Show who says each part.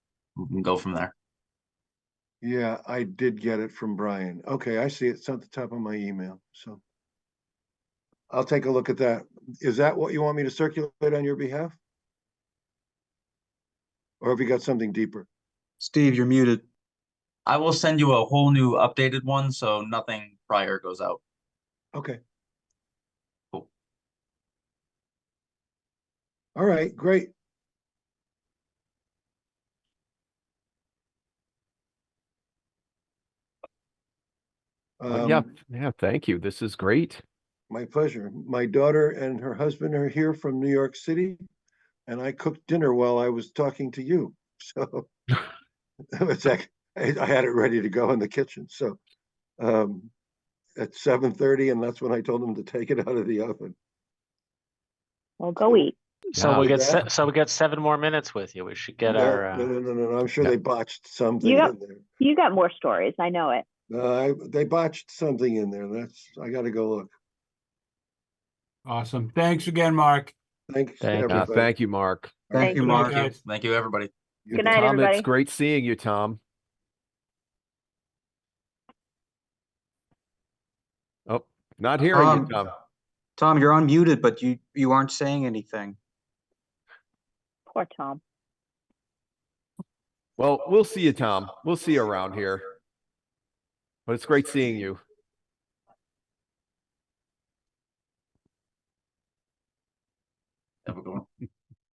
Speaker 1: we can go from there.
Speaker 2: Yeah, I did get it from Brian. Okay, I see it. It's at the top of my email, so. I'll take a look at that. Is that what you want me to circulate on your behalf? Or have you got something deeper?
Speaker 3: Steve, you're muted.
Speaker 1: I will send you a whole new updated one, so nothing prior goes out.
Speaker 2: Okay.
Speaker 1: Cool.
Speaker 2: All right, great.
Speaker 4: Well, Uh, Yeah,
Speaker 2: Um,
Speaker 4: yeah, thank you. This is great.
Speaker 2: My pleasure. My daughter and her husband are here from New York City, and I cooked dinner while I was talking to you. So it's like I I had it ready to go in the kitchen. So um, at seven thirty, and that's when I told them to take it out of the oven.
Speaker 5: Well, go eat.
Speaker 4: Yeah.
Speaker 6: So we got,
Speaker 2: Yeah.
Speaker 6: se- so we got seven more minutes with you. We should get
Speaker 2: No,
Speaker 6: our,
Speaker 2: no,
Speaker 6: uh,
Speaker 2: no, no, no, no. I'm sure
Speaker 4: yeah.
Speaker 2: they botched something
Speaker 5: Yeah.
Speaker 2: in there.
Speaker 5: You got more stories. I know it.
Speaker 2: No, I, they botched something in there. That's I got to go look.
Speaker 7: Awesome. Thanks again, Mark.
Speaker 2: Thanks.
Speaker 6: Thank-
Speaker 4: Yeah,
Speaker 2: everybody.
Speaker 4: Uh, thank you, Mark.
Speaker 5: Thank you,
Speaker 7: Mark.
Speaker 1: Thank you, thank you, everybody.
Speaker 2: You
Speaker 5: Good
Speaker 2: bet.
Speaker 5: night,
Speaker 4: Tom,
Speaker 5: everybody.
Speaker 4: it's great seeing you, Tom. Oh, not hearing you,
Speaker 3: Um,
Speaker 4: Tom.
Speaker 3: Tom, you're unmuted, but you, you aren't saying anything.
Speaker 5: Poor Tom.
Speaker 4: Well, we'll see you, Tom. We'll see you around here. But it's great seeing you.
Speaker 1: Have a good one.